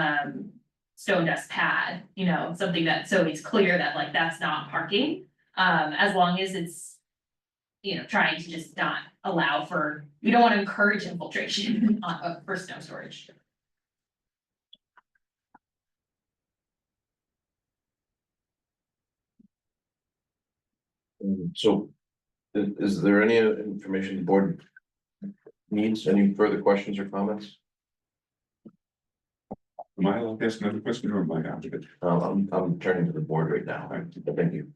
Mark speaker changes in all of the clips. Speaker 1: um, stone dust pad, you know, something that, so it's clear that like that's not parking. Um, as long as it's, you know, trying to just not allow for, you don't wanna encourage infiltration on, uh, for snow storage.
Speaker 2: Um, So i- is there any information the board needs? Any further questions or comments?
Speaker 3: Am I allowed to ask another question or am I out of it?
Speaker 2: Um, I'm, I'm turning to the board right now. Thank you.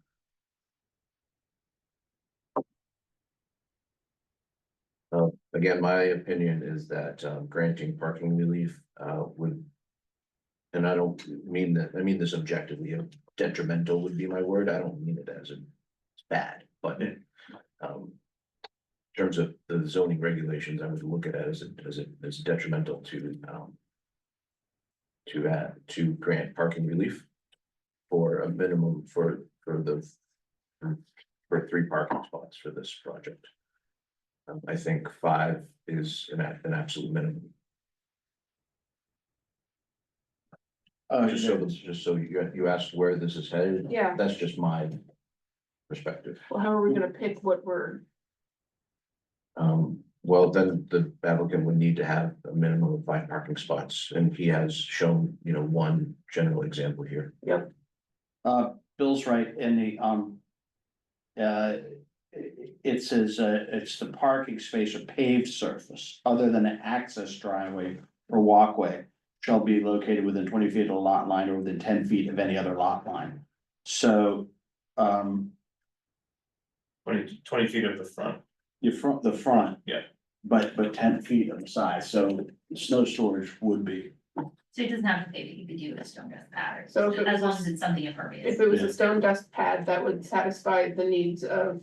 Speaker 2: Uh, again, my opinion is that um, granting parking relief, uh, would. And I don't mean that, I mean this objectively, uh, detrimental would be my word. I don't mean it as a, it's bad, but it, um. In terms of the zoning regulations, I would look at it as, a- as, a- as detrimental to, um. To add, to grant parking relief. For a minimum, for, for the. For three parking spots for this project. Um, I think five is an, a- an absolute minimum,
Speaker 4: Uh,
Speaker 2: just so, just so you, you asked where this is headed.
Speaker 5: Yeah.
Speaker 2: That's just my perspective.
Speaker 5: Well, how are we gonna pick what we're,
Speaker 2: Um, well, then the applicant would need to have a minimum of five parking spots, and he has shown, you know, one general example here.
Speaker 4: uh, Bill's right in the, um. Uh, it, it says, uh, it's the parking space or paved surface other than an access driveway or walkway. Shall be located within twenty feet of a lot line or within ten feet of any other lot line. So, um,
Speaker 6: Twenty, twenty feet of the front,
Speaker 4: your front, the front.
Speaker 6: Yeah.
Speaker 4: But, but ten feet on the side, so snow storage would be,
Speaker 1: So it doesn't have to say that you could do a stone dust pad or,
Speaker 5: so if it
Speaker 1: as long
Speaker 5: was,
Speaker 1: as it's something
Speaker 5: if
Speaker 1: impervious,
Speaker 5: it was
Speaker 4: Yeah.
Speaker 5: a stone dust pad, that would satisfy the needs of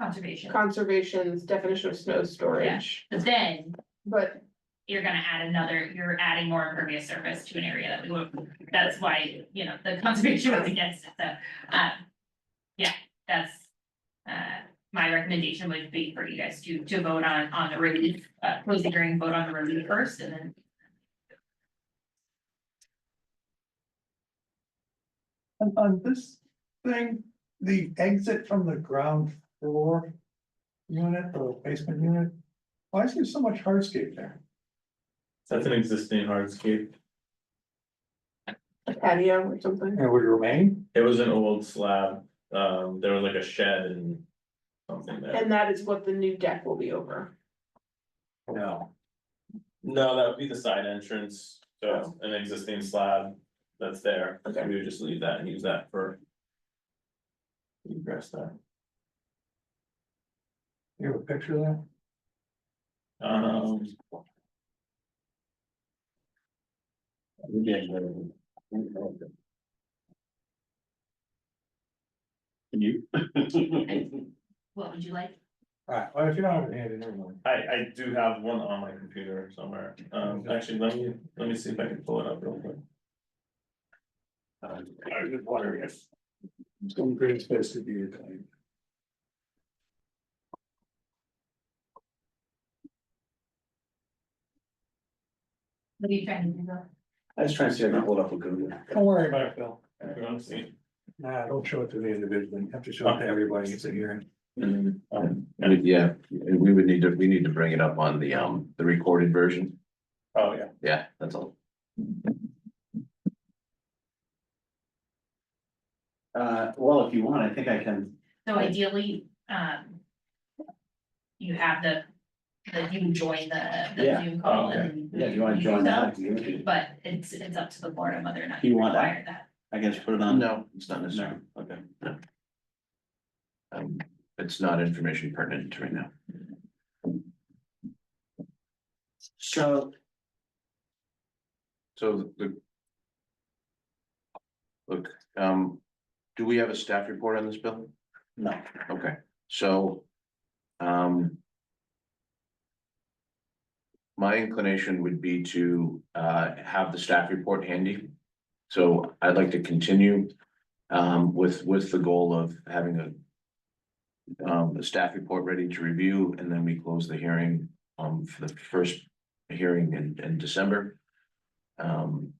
Speaker 1: conservation.
Speaker 5: conservation's definition of snow storage.
Speaker 1: But then
Speaker 5: But
Speaker 1: you're gonna add another, you're adding more impervious surface to an area that we would, that's why, you know, the conservation was against it, so, um. Yeah, that's, uh, my recommendation would be for you guys to, to vote on, on the relief, uh, close the hearing, vote on the relief first, and then.
Speaker 7: On, on this thing, the exit from the ground floor unit or basement unit, why is there so much hardscape there?
Speaker 6: that's an existing hardscape,
Speaker 5: a patio or something,
Speaker 7: And it would remain?
Speaker 6: it was an old slab, um, there was like a shed and something there.
Speaker 5: and that is what the new deck will be over.
Speaker 4: no,
Speaker 6: No, that would be the side entrance, so it's an existing slab that's there,
Speaker 5: Okay.
Speaker 6: we would just leave that and use that for. Egress there,
Speaker 7: You have a picture of that?
Speaker 6: um,
Speaker 4: can you?
Speaker 1: What would you like?
Speaker 7: Alright, well, if you don't have it handy, never mind.
Speaker 6: I, I do have one on my computer somewhere, um, actually, let me, let me see if I can pull it up real quick.
Speaker 7: I was just wondering if. Some green space to be reclaimed.
Speaker 1: What are you trying to do though?
Speaker 4: I was trying to see if I can hold up a Google.
Speaker 7: Don't worry about it, Bill.
Speaker 6: You wanna see?
Speaker 7: Nah, don't show it to the individual. You have to show it to everybody. It's a hearing.
Speaker 6: Um,
Speaker 2: Yeah, we would need to, we need to bring it up on the, um, the recorded version.
Speaker 6: Oh, yeah.
Speaker 2: Yeah, that's all.
Speaker 4: Uh, well, if you want, I think I can,
Speaker 1: So ideally, um. You have the, the, you join the, the
Speaker 4: Yeah.
Speaker 1: Zoom call
Speaker 6: Oh, okay.
Speaker 1: and.
Speaker 4: yeah, if you wanna join that, you can.
Speaker 1: But it's, it's up to the board on whether or not
Speaker 4: You
Speaker 1: you
Speaker 4: want that?
Speaker 1: require that.
Speaker 4: I guess put it on.
Speaker 2: Uh, No, it's not necessary.
Speaker 4: No, okay.
Speaker 2: Um, it's not information pertinent right now.
Speaker 4: So,
Speaker 2: So the. Look, um, do we have a staff report on this bill?
Speaker 4: no,
Speaker 2: Okay, so. Um. My inclination would be to uh have the staff report handy. So I'd like to continue um with with the goal of having a. Um, a staff report ready to review and then we close the hearing um for the first hearing in in December. Um,